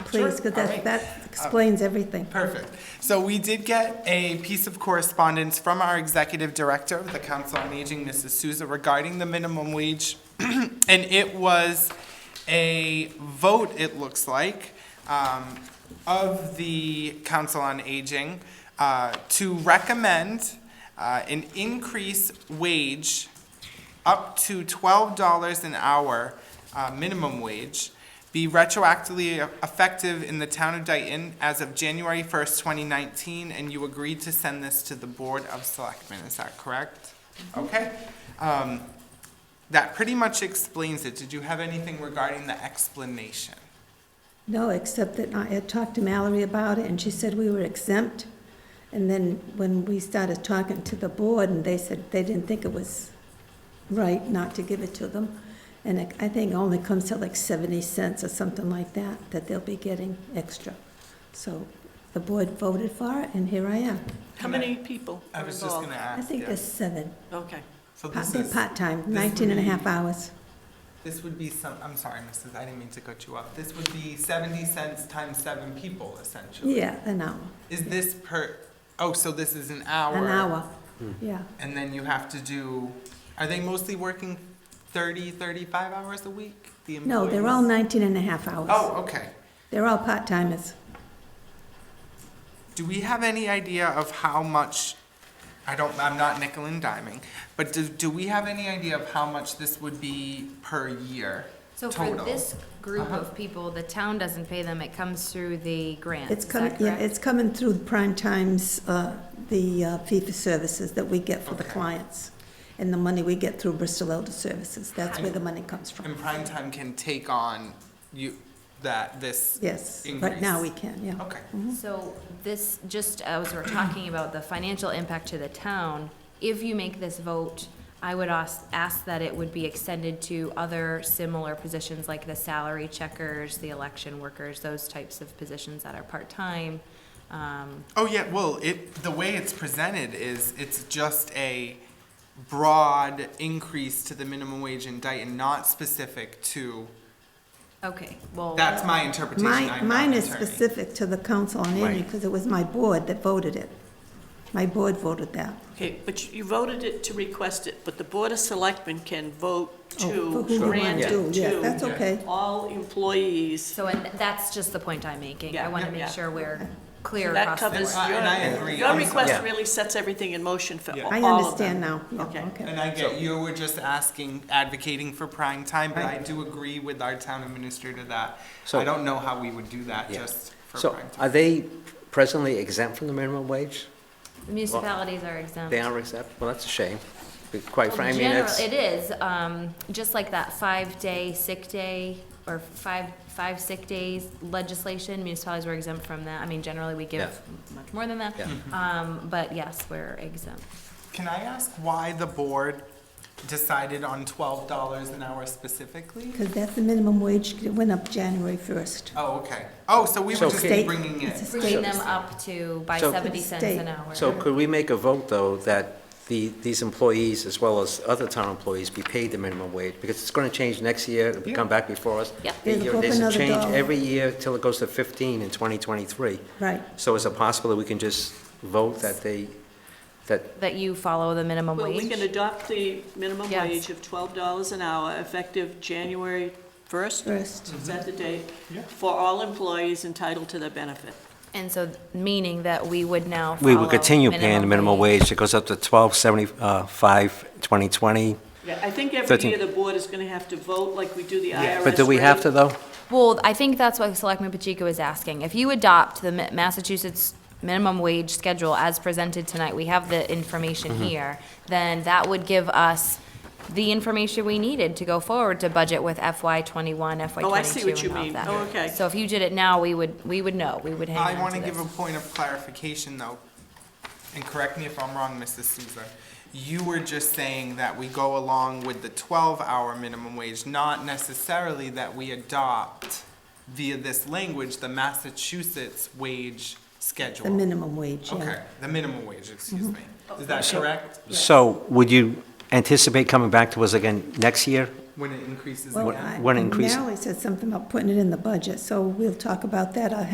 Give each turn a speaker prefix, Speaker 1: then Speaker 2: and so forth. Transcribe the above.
Speaker 1: please,
Speaker 2: Sure, Uh,
Speaker 1: because
Speaker 2: all right.
Speaker 1: that, that explains everything.
Speaker 2: Perfect. So we did get a piece of correspondence from our executive director of the Council on Aging, Mrs. Souza, regarding the minimum wage. And it was a vote, it looks like, um, of the Council on Aging uh, to recommend uh, an increase wage up to twelve dollars an hour, uh, minimum wage, be retroactively effective in the town of Dayton as of January first, twenty nineteen, and you agreed to send this to the Board of Selectmen, is that correct?
Speaker 1: Mm-hmm.
Speaker 2: Okay, um, that pretty much explains it. Did you have anything regarding the explanation?
Speaker 1: No, except that I had talked to Mallory about it, and she said we were exempt. And then when we started talking to the board, and they said they didn't think it was right not to give it to them. And it- I think it only comes to like 70 cents or something like that, that they'll be getting extra. So the board voted for it, and here I am.
Speaker 3: How many people
Speaker 2: I
Speaker 3: are
Speaker 2: was just gonna
Speaker 3: involved?
Speaker 1: I
Speaker 2: ask,
Speaker 1: think
Speaker 2: yeah.
Speaker 1: there's seven,
Speaker 3: Okay.
Speaker 2: So
Speaker 1: Pa-
Speaker 2: this
Speaker 1: they're
Speaker 2: is-
Speaker 1: part-time,
Speaker 2: this
Speaker 1: 19 and a
Speaker 2: would
Speaker 1: half
Speaker 2: be-
Speaker 1: hours.
Speaker 2: This would be some, I'm sorry, Mrs., I didn't mean to cut you off. This would be seventy cents times seven people essentially.
Speaker 1: Yeah, an hour,
Speaker 2: Is this per, oh, so this is an hour? Hmm.
Speaker 1: an hour, yeah.
Speaker 2: And then you have to do, are they mostly working 30, 35 hours a week? The
Speaker 1: No, they're all
Speaker 2: employees?
Speaker 1: 19 and a half hours.
Speaker 2: Oh, okay.
Speaker 1: They're all part-timers.
Speaker 2: Do we have any idea of how much, I don't, I'm not nickel and diming, but do, do we have any idea of how much this would be per year?
Speaker 4: So for
Speaker 2: total?
Speaker 4: this group
Speaker 2: Uh-huh.
Speaker 4: of people, the town doesn't pay them, it comes through the grant,
Speaker 1: It's
Speaker 4: is
Speaker 1: coming,
Speaker 4: that
Speaker 1: yeah,
Speaker 4: correct?
Speaker 1: it's coming through prime times, uh, the uh, fee for services that we get for the
Speaker 2: Okay.
Speaker 1: clients, and the money we get through Bristol Elder Services, that's where the money comes
Speaker 2: And
Speaker 1: from.
Speaker 2: prime time can take on you, that, this?
Speaker 1: Yes, right now we
Speaker 2: Increase.
Speaker 1: can, yeah.
Speaker 2: Okay.
Speaker 4: So this, just as we're talking about the financial impact to the town, if you make this vote, I would ask, ask that it would be extended to other similar positions like the salary checkers, the election workers, those types of positions that are part-time. Um,
Speaker 2: Oh yeah, well, it the way it's presented is it's just a broad increase to the minimum wage in Dayton, not specific to.
Speaker 4: Okay, well.
Speaker 2: That's my interpretation.
Speaker 1: Mine,
Speaker 2: I'm
Speaker 1: mine
Speaker 2: not
Speaker 1: is
Speaker 2: an attorney.
Speaker 1: specific to the Council on Aging,
Speaker 2: Right.
Speaker 1: because it was my board that voted it. My board voted that.
Speaker 3: Okay, but you- you voted it to request it, but the Board of Selectmen can vote
Speaker 1: Oh,
Speaker 3: to
Speaker 1: for who we
Speaker 3: grant
Speaker 1: want
Speaker 3: it
Speaker 1: to, yeah, That's
Speaker 3: to
Speaker 1: okay.
Speaker 3: all employees.
Speaker 4: So, and that's just the point I'm making. I
Speaker 3: Yeah,
Speaker 4: want
Speaker 3: yeah,
Speaker 4: to make
Speaker 3: yeah.
Speaker 4: sure we're clear
Speaker 3: That
Speaker 4: across the
Speaker 3: covers
Speaker 4: board.
Speaker 2: Uh, and I agree,
Speaker 3: your, your
Speaker 2: I'm
Speaker 3: request
Speaker 2: sorry.
Speaker 3: really sets everything in motion for all
Speaker 2: Yeah.
Speaker 3: of
Speaker 1: I
Speaker 3: them.
Speaker 1: understand now, yeah,
Speaker 3: Okay.
Speaker 1: okay.
Speaker 2: And I get you were just asking, advocating for prime time, but I do agree with our town administrator that
Speaker 5: So-
Speaker 2: I don't know how we would do that
Speaker 5: Yeah.
Speaker 2: just for
Speaker 5: So
Speaker 2: prime
Speaker 5: are
Speaker 2: time.
Speaker 5: they presently exempt from the minimum wage?
Speaker 4: Municipalities are exempt.
Speaker 5: They are exempt? Well, that's a shame. But Quite
Speaker 4: Well,
Speaker 5: frankly,
Speaker 4: Oh, general-
Speaker 5: that's,
Speaker 4: It is, um, just like that five-day sick day or five, five sick days legislation, municipalities were exempt from that. I mean, generally, we give much more than that.
Speaker 5: Yeah.
Speaker 3: Mm-hmm.
Speaker 4: Um, but yes, we're exempt.
Speaker 2: Can I ask why the board decided on twelve dollars an hour specifically?
Speaker 1: Because that's the minimum wage, it went up January 1st.
Speaker 2: Oh, okay. Oh, so we were
Speaker 5: So-
Speaker 2: just
Speaker 1: State-
Speaker 2: bringing
Speaker 1: it's a state
Speaker 2: it.
Speaker 4: Bringing them up to by
Speaker 5: So-
Speaker 4: seventy cents an hour.
Speaker 5: so could we make a vote, though, that the, these employees, as well as other town employees, be paid the minimum wage? Because it's going to change next year, it'll come back before us.
Speaker 4: Yep.
Speaker 5: The
Speaker 1: It'll
Speaker 5: year-
Speaker 1: go up
Speaker 5: There's a
Speaker 1: another
Speaker 5: change
Speaker 1: dollar.
Speaker 5: every year till it goes to 15 in 2023.
Speaker 1: Right,
Speaker 5: So is it possible that we can just vote that they, that
Speaker 4: That you follow the minimum
Speaker 3: Well, we can
Speaker 4: wage.
Speaker 3: adopt the minimum
Speaker 4: Yes.
Speaker 3: wage of twelve dollars an hour effective January first?
Speaker 1: first,
Speaker 3: Is that the date?
Speaker 2: Mm-hmm. Yeah.
Speaker 3: For all employees entitled to their benefit.
Speaker 4: And so, meaning that we would now
Speaker 5: We will
Speaker 4: follow
Speaker 5: continue paying the minimum wage. It goes up to twelve seventy-five, twenty twenty.
Speaker 3: Yeah, I think every
Speaker 5: Thirteen.
Speaker 3: year the board is gonna have to vote like we do the IRS.
Speaker 5: But do we have
Speaker 3: rate.
Speaker 5: to, though?
Speaker 4: Well, I think that's what Selectman Pacheco is asking. If you adopt the Ma- Massachusetts minimum wage schedule as presented tonight, we have the information
Speaker 2: Mm-hmm.
Speaker 4: here, then that would give us the information we needed to go forward to budget with FY twenty-one, FY twenty-two and
Speaker 3: Oh,
Speaker 4: all of that.
Speaker 3: I see what you mean. Oh, okay.
Speaker 4: So if you did it now, we would, we would know, we would hang on to
Speaker 2: I
Speaker 4: this.
Speaker 2: want to give a point of clarification, though, and correct me if I'm wrong, Mrs. Souza. You were just saying that we go along with the 12-hour minimum wage, not necessarily that we adopt via this language, the Massachusetts wage
Speaker 1: the
Speaker 2: schedule.
Speaker 1: minimum wage, yeah.
Speaker 2: Okay, the minimum wage, excuse me. Is that correct?
Speaker 5: So would you anticipate coming back to us again next year
Speaker 2: when it increases
Speaker 1: Well,
Speaker 2: again.
Speaker 1: I-
Speaker 5: One increase.
Speaker 1: Natalie said something about putting it in the budget, so we'll talk about that. I